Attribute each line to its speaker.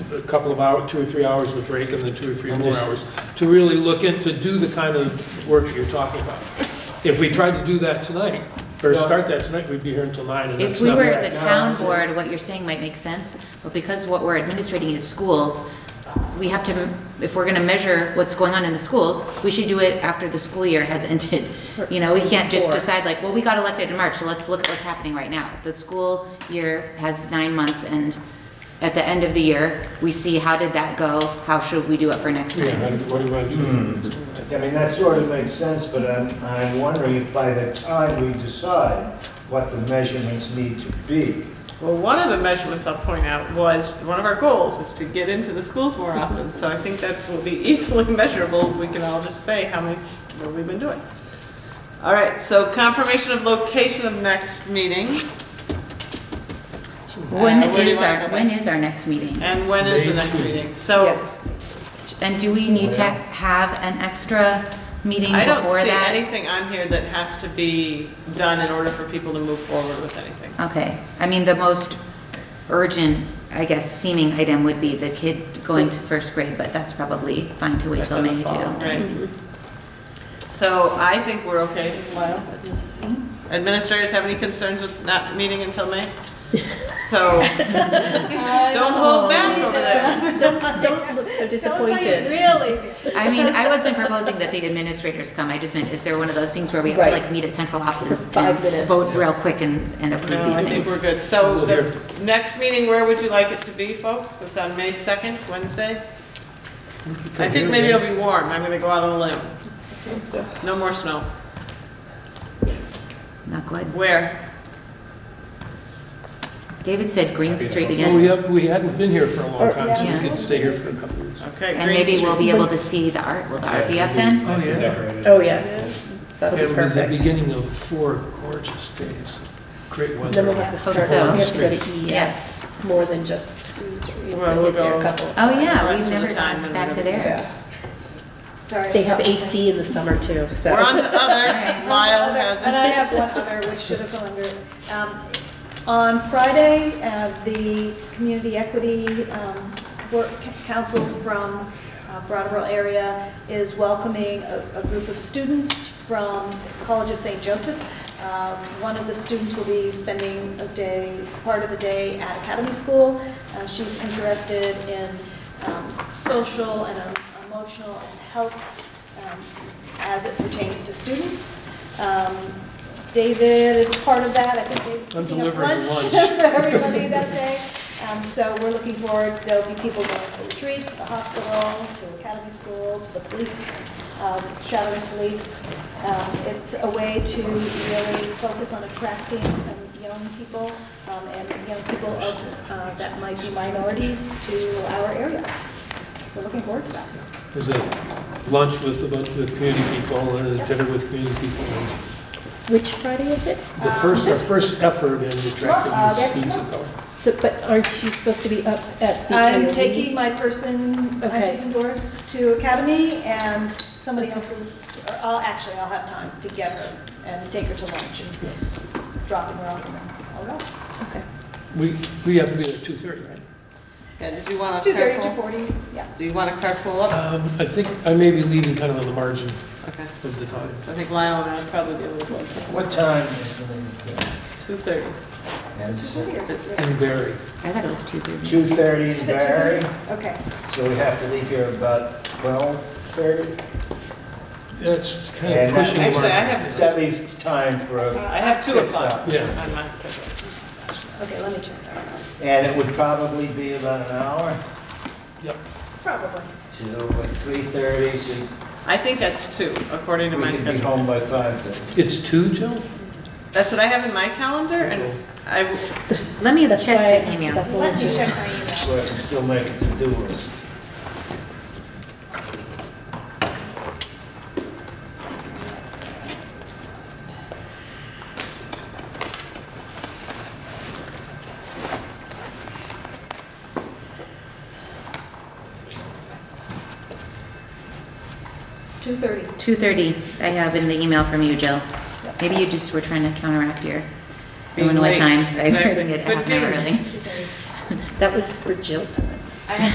Speaker 1: couple of hour, two or three hours with break and then two or three
Speaker 2: I'm
Speaker 1: more
Speaker 2: just-
Speaker 1: hours to really look in, to do the kind of work that you're talking about. If we tried to do that tonight, or
Speaker 2: Well-
Speaker 1: start that tonight, we'd be here until nine and
Speaker 3: If
Speaker 1: that's
Speaker 3: we
Speaker 1: not.
Speaker 3: were the
Speaker 2: no,
Speaker 3: town
Speaker 2: I'm just-
Speaker 3: board, what you're saying might make sense, but because what we're administrating is schools, we have to, if we're gonna measure what's going on in the schools, we should do it after the school year has ended. You know, we can't just
Speaker 2: Or-
Speaker 3: decide like, well, we got elected in March, so let's look at what's happening right now. The school year has nine months, and at the end of the year, we see how did that go, how should we do it for next
Speaker 1: Yeah,
Speaker 3: time?
Speaker 1: and what do you want to do?
Speaker 2: I mean, that sort of makes sense, but I'm, I'm wondering if by the time we decide what the measurements need to be,
Speaker 4: Well, one of the measurements I'll point out was, one of our goals is to get into the schools more often. So I think that will be easily measurable. if We can all just say how many, what we've been doing. All right, so confirmation of location of next meeting
Speaker 3: When
Speaker 4: Uh, where do you
Speaker 3: is
Speaker 4: wanna
Speaker 3: our,
Speaker 4: go?
Speaker 3: when is our next meeting?
Speaker 4: and when is the
Speaker 1: May
Speaker 4: next
Speaker 1: two.
Speaker 4: meeting? So
Speaker 3: And do we need to have an extra meeting
Speaker 4: I don't
Speaker 3: before
Speaker 4: see
Speaker 3: that?
Speaker 4: anything on here that has to be done in order for people to move forward with anything.
Speaker 3: Okay, I mean, the most urgent, I guess, seeming item would be the kid going to first grade, but that's probably fine to wait
Speaker 4: That's
Speaker 3: till
Speaker 4: in the
Speaker 3: May
Speaker 4: fall,
Speaker 3: too.
Speaker 4: Right. So I think we're okay, Lyle. Administrators have any concerns with not meeting until May? So, don't hold back over that.
Speaker 5: Oh. Don't, don't look so disappointed.
Speaker 6: Really?
Speaker 3: I mean, I wasn't proposing that the administrators come, I just meant, is there one of those things where we have to
Speaker 5: Right.
Speaker 3: like meet at central offices?
Speaker 5: For five
Speaker 3: and
Speaker 5: minutes.
Speaker 3: Vote real quick and, and approve
Speaker 4: No,
Speaker 3: these
Speaker 4: I think we're
Speaker 3: things?
Speaker 4: good. So
Speaker 1: We'll
Speaker 4: the
Speaker 1: hear.
Speaker 4: next meeting, where would you like it to be, folks? It's on May 2nd, Wednesday? I think maybe it'll be warm. I'm gonna go out on a limb. No more snow.
Speaker 3: Not good.
Speaker 4: Where?
Speaker 3: David said Green Street
Speaker 1: Well, we
Speaker 3: again,
Speaker 1: have, we hadn't been here for a long
Speaker 5: Or-
Speaker 1: time, so we
Speaker 3: Yeah.
Speaker 1: could stay here for a couple of years.
Speaker 4: Okay,
Speaker 3: and
Speaker 4: Green
Speaker 3: maybe
Speaker 4: Street.
Speaker 3: we'll be able to see the art, will the art be up then?
Speaker 1: Oh, yeah.
Speaker 5: Oh, yes. That would be
Speaker 1: And with the
Speaker 5: perfect.
Speaker 1: beginning of four gorgeous days of great weather.
Speaker 5: Then we'll have to
Speaker 3: Hope
Speaker 5: start, we
Speaker 3: so.
Speaker 5: have to go
Speaker 1: Space.
Speaker 5: to
Speaker 3: Yes.
Speaker 5: ES, more than just, we have
Speaker 4: Well,
Speaker 5: to
Speaker 4: we'll
Speaker 5: get there
Speaker 4: go-
Speaker 5: a couple. of
Speaker 3: Oh,
Speaker 5: times.
Speaker 3: yeah,
Speaker 4: Rest
Speaker 3: we've
Speaker 4: of the
Speaker 3: never
Speaker 4: time
Speaker 3: gone
Speaker 4: and
Speaker 3: back to
Speaker 4: everything.
Speaker 3: there.
Speaker 5: Yeah.
Speaker 6: Sorry.
Speaker 5: They have AC in the summer too, so.
Speaker 4: We're on to
Speaker 3: right.
Speaker 4: other. Lyle
Speaker 6: Other-
Speaker 4: has
Speaker 6: And I
Speaker 4: it.
Speaker 6: have one other, which should have gone under. Um, On Friday, uh, the Community Equity um, Work Council from uh, Brattleboro area is welcoming a a group of students from College of St. Joseph. Um, One of the students will be spending a day, part of the day at Academy School. Uh, She's interested in um, social and um, emotional and health um, as it pertains to students. Um, David is part of that, I think David's
Speaker 1: I'm
Speaker 6: picking up
Speaker 1: delivering
Speaker 6: lunch
Speaker 1: lunch.
Speaker 6: for everybody that day. Um, So we're looking forward, there'll be people going to the retreat, to the hospital, to academy school, to the police, um, shadowing police. Um, It's a way to really focus on attracting some young people um, and young people of, uh, that might be minorities to our area. So looking forward to that.
Speaker 1: There's a lunch with, about- with community people and a dinner with community people. and
Speaker 5: Which Friday is it?
Speaker 1: The first, our first effort in attracting
Speaker 6: Uh,
Speaker 1: these
Speaker 6: that's-
Speaker 1: students of color.
Speaker 5: So, but aren't you supposed to be up at the
Speaker 6: I'm
Speaker 5: AOD?
Speaker 6: taking my person, I'm
Speaker 5: Okay.
Speaker 6: taking Doris to Academy and somebody else's, or I'll, actually, I'll have time to get her and take her to lunch and drop her off and then I'll go.
Speaker 5: Okay.
Speaker 1: We, we have to be there at 2:30, right?
Speaker 4: And did you want to
Speaker 6: Two thirty, two
Speaker 4: carpool?
Speaker 6: forty, yeah.
Speaker 4: Do you want to carpool up?
Speaker 1: Um, I think I may be leaving kind of on the margin
Speaker 4: Okay.
Speaker 1: of the time.
Speaker 4: I think Lyle and I would probably be a little closer.
Speaker 2: what time is the meeting?
Speaker 4: Two thirty.
Speaker 2: And so-
Speaker 1: And Barry,
Speaker 3: I thought it was two thirty.
Speaker 2: 2:30
Speaker 6: Is
Speaker 2: in
Speaker 6: it 2:30?
Speaker 2: Barry,
Speaker 6: Okay,
Speaker 2: so we have to leave here about 12:30?
Speaker 1: that's kind of
Speaker 2: And that
Speaker 1: pushing the
Speaker 4: Actually, I
Speaker 1: margin.
Speaker 4: have,
Speaker 2: That leaves time for a,
Speaker 4: I have two
Speaker 2: Good
Speaker 4: o'clock
Speaker 2: stuff.
Speaker 1: Yeah.
Speaker 4: on my schedule.
Speaker 6: okay, let me check.
Speaker 2: and it would probably be about an hour
Speaker 1: Yep.
Speaker 6: Probably.
Speaker 2: to 3:30, so
Speaker 4: I think that's two, according to my
Speaker 2: we can be
Speaker 4: schedule.
Speaker 2: home by 5:30.
Speaker 1: It's two, Jill?
Speaker 4: That's what I have in my calendar, and I,
Speaker 3: Let me
Speaker 5: That's why I
Speaker 3: check the
Speaker 5: asked
Speaker 3: email.
Speaker 5: that
Speaker 6: Let me
Speaker 5: religious-
Speaker 6: check my email.
Speaker 2: So I can still make it to Dewar's.
Speaker 6: Two thirty.
Speaker 3: Two thirty, I have in the email from you, Jill. Maybe you just were trying to counteract your, I
Speaker 4: Being
Speaker 3: don't know what
Speaker 4: late.
Speaker 3: time, by
Speaker 4: Exactly.
Speaker 3: putting it
Speaker 4: Could
Speaker 3: half an hour
Speaker 4: be.
Speaker 3: early.
Speaker 5: That was for Jill tonight.